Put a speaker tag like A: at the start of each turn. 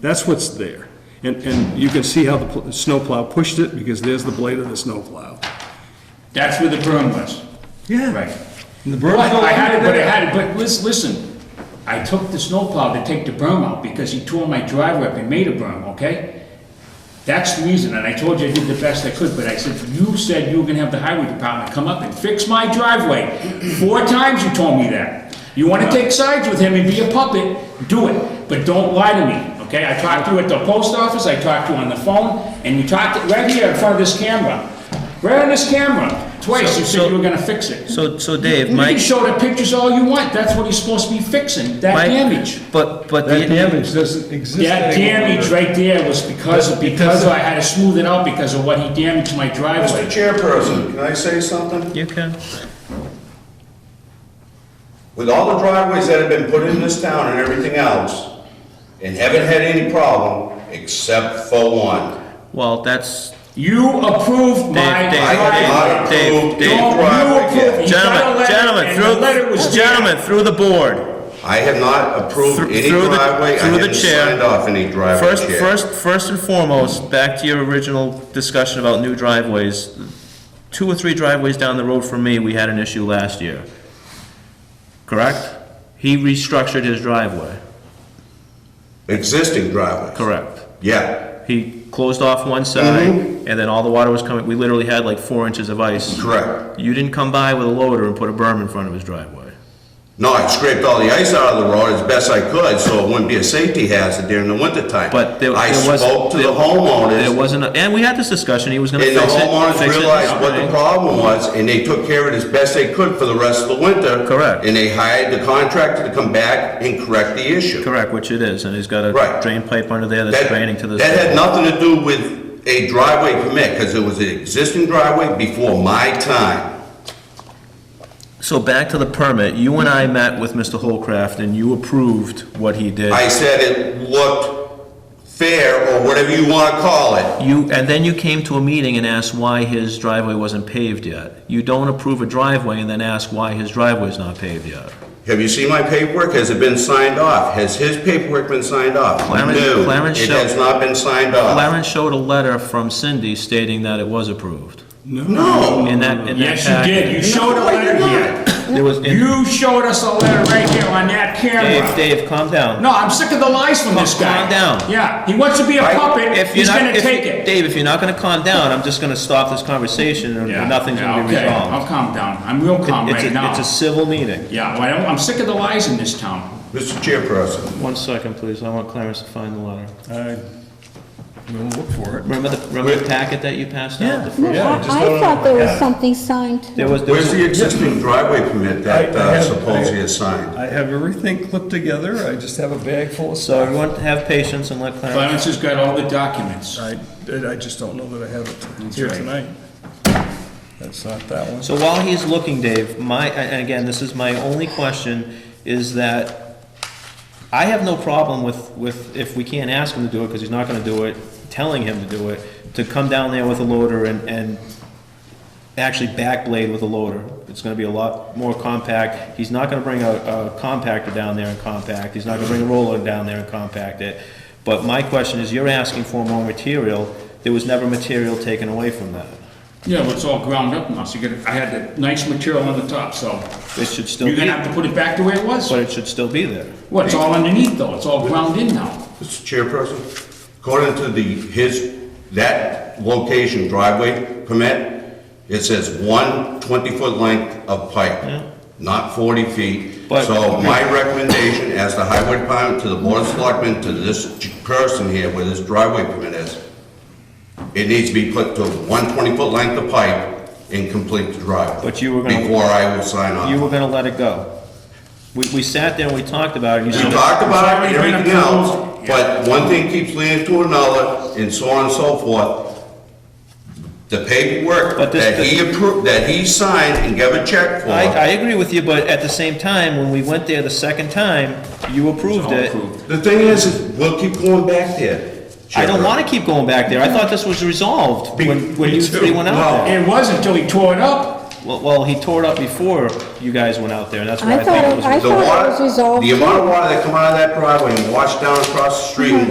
A: That's what's there. And, and you can see how the pl- snowplow pushed it, because there's the blade of the snowplow.
B: That's where the berm was.
A: Yeah.
B: Right.
A: And the
B: But
A: berm's all
B: I had it,
A: under
B: but I
A: there.
B: had it, but lis- listen, I took the snowplow to take the berm out because he tore my driveway up and made a berm, okay? That's the reason, and I told you I did the best I could, but I said, you said you were gonna have the highway department come up and fix my driveway. Four times you told me that. You wanna take sides with him and be a puppet, do it, but don't lie to me, okay? I talked to you at the post office, I talked to you on the phone, and you talked right here in front of this camera. Right on this camera, twice you said you were gonna fix it.
C: So, so Dave,
B: You can
C: Mike,
B: show the pictures all you want, that's what he's supposed to be fixing, that
C: Mike,
B: damage.
C: but, but
D: That
C: the,
D: damage doesn't exist
B: That
D: anymore.
B: damage right there was because, of because I had to smooth it out because of what he damaged my
E: Mr.
B: driveway.
E: Chairperson, can I say something?
C: you can,
E: With all the driveways that have been put in this town and everything else, and haven't had any problem, except for one.
C: well, that's,
B: You approved my
C: Dave, Dave,
B: driveway.
C: Dave, Dave,
E: approved
C: Dave.
E: any
B: Don't
E: driveway
B: you approve
E: yet.
B: it. got a
C: Gentlemen,
B: letter,
C: gentlemen,
B: and the letter was
C: through,
B: there.
C: gentlemen, through the board.
E: I have not approved
C: Through-
E: any
C: through the-
E: driveway, I
C: through the
E: haven't
C: chair.
E: signed off any driveway
C: First,
E: chair.
C: first, first and foremost, back to your original discussion about new driveways. Two or three driveways down the road from me, we had an issue last year. Correct? He restructured his driveway.
E: Existing driveway.
C: Correct.
E: Yeah,
C: He closed off one side, and
D: Mm-hmm.
C: then all the water was coming, we literally had like four inches of ice.
E: correct.
C: You didn't come by with a loader and put a berm in front of his driveway.
E: No, I scraped all the ice out of the road as best I could, so it wouldn't be a safety hazard during the wintertime.
C: But there
E: I
C: there was.
E: spoke to the
C: there- There
E: homeowners,
C: wasn't, a- and we had this discussion, he was gonna
E: and
C: fix
E: the
C: it.
E: homeowners
C: fix it,
E: realized what the
C: okay.
E: problem was, and they took care of it as best they could for the rest of the winter.
C: Correct.
E: And they hired the contractor to come back and correct the issue.
C: Correct, which it is, and he's got a
E: Right.
C: drain pipe under there that's
E: That-
C: draining to this.
E: That had nothing to do with a driveway permit, because it was an existing driveway before my time.
C: So back to the permit, you and I met with Mr. Holcraft, and you approved what he did.
E: I said it looked fair, or whatever you want to call it,
C: You, and then you came to a meeting and asked why his driveway wasn't paved yet. You don't approve a driveway and then ask why his driveway's not paved yet.
E: Have you seen my paperwork? Has it been signed off? Has his paperwork been signed off?
C: Clarence-
E: No,
C: Clarence
E: it
C: Shel-
E: has not been signed off.
C: Clarence showed a letter from Cindy stating that it was approved.
E: No.
C: In that, in that
B: Yes, you did, you
C: packet.
B: showed a
E: No, I did
B: letter here.
C: There was, in-
B: You showed us a letter right here on that
C: Dave,
B: camera.
C: Dave, calm down.
B: No, I'm sick of the lies from this guy.
C: Calm down.
B: Yeah, he wants to be a
E: I-
B: puppet,
C: If you're
B: he's
C: not-
B: gonna
C: if-
B: take it.
C: Dave, if you're not gonna calm down, I'm just gonna stop this conversation
B: Yeah,
C: and nothing's
B: yeah,
C: gonna be
B: okay,
C: resolved.
B: I'll calm down. I'm real calm
C: It's
B: right
C: a,
B: now.
C: it's a civil meeting.
B: Yeah, well, I'm- I'm sick of the lies in this town.
E: Mr. Chairperson,
C: One second, please, I want Clarence to find the letter.
D: I- We'll look for it.
C: Remember the, remember the packet that you passed out? the
D: Yeah, I
C: first-
F: I
D: just don't
F: I thought there
E: yeah.
F: was something signed.
C: There was, there
E: where's
C: was,
E: the existing driveway permit that
D: I- I
E: uh,
D: have-
E: supposedly is signed?
D: I have everything clipped together, I just have a bag full of
C: so
D: stuff.
C: everyone have patience and let Clarence.
B: Clarence has got all the documents.
D: I, I just don't know that I have it here
B: right.
D: tonight. That's not that one.
C: So while he's looking, Dave, my, and again, this is my only question, is that I have no problem with, with, if we can't ask him to do it, because he's not gonna do it, telling him to do it, to come down there with a loader and, and actually backblade with a loader. It's gonna be a lot more compact. He's not gonna bring a, a compactor down there and compact. He's not gonna bring a roller down there and compact it. But my question is, you're asking for more material. There was never material taken away from that.
B: Yeah, well, it's all ground up now, so you gotta, I had the nice material on the top, so
C: It should still be.
B: you're gonna have to put it back the way it was.
C: But it should still be there.
B: Well, it's all underneath though, it's all ground in now.
E: Mr. Chairperson, according to the, his, that location driveway permit, it says one 20-foot length of pipe, not 40 feet.
C: But-
E: So my recommendation as the highway department to the board of selectmen, to this ch- person here where this driveway permit is, it needs to be put to one 20-foot length of pipe and complete the driveway.
C: But you were gonna-
E: Before I will sign off.
C: You were gonna let it go. We, we sat there and we talked about it, and you
E: We
C: said,
E: talked about it,
B: It's already been
E: everything else,
B: approved.
E: but one thing keeps leading to another, and so on and so forth. The
C: But
E: paperwork
C: this-
E: that he approved, that he signed and gave a check
C: I, I
E: for,
C: agree with you, but at the same time, when we went there the second time, you approved it.
E: the thing is, is we'll keep going back there.
C: I don't wanna keep going back there, I thought this was resolved when, when you three went out there.
B: It was until he tore it up.
C: Well, well, he tore it up before you guys went out there, and that's why
F: I
C: I think
F: thought-
C: it was.
F: I
E: The
F: thought it
E: water-
F: was resolved, Mm-hmm.
E: The amount of water that come out of that driveway and wash down across the street and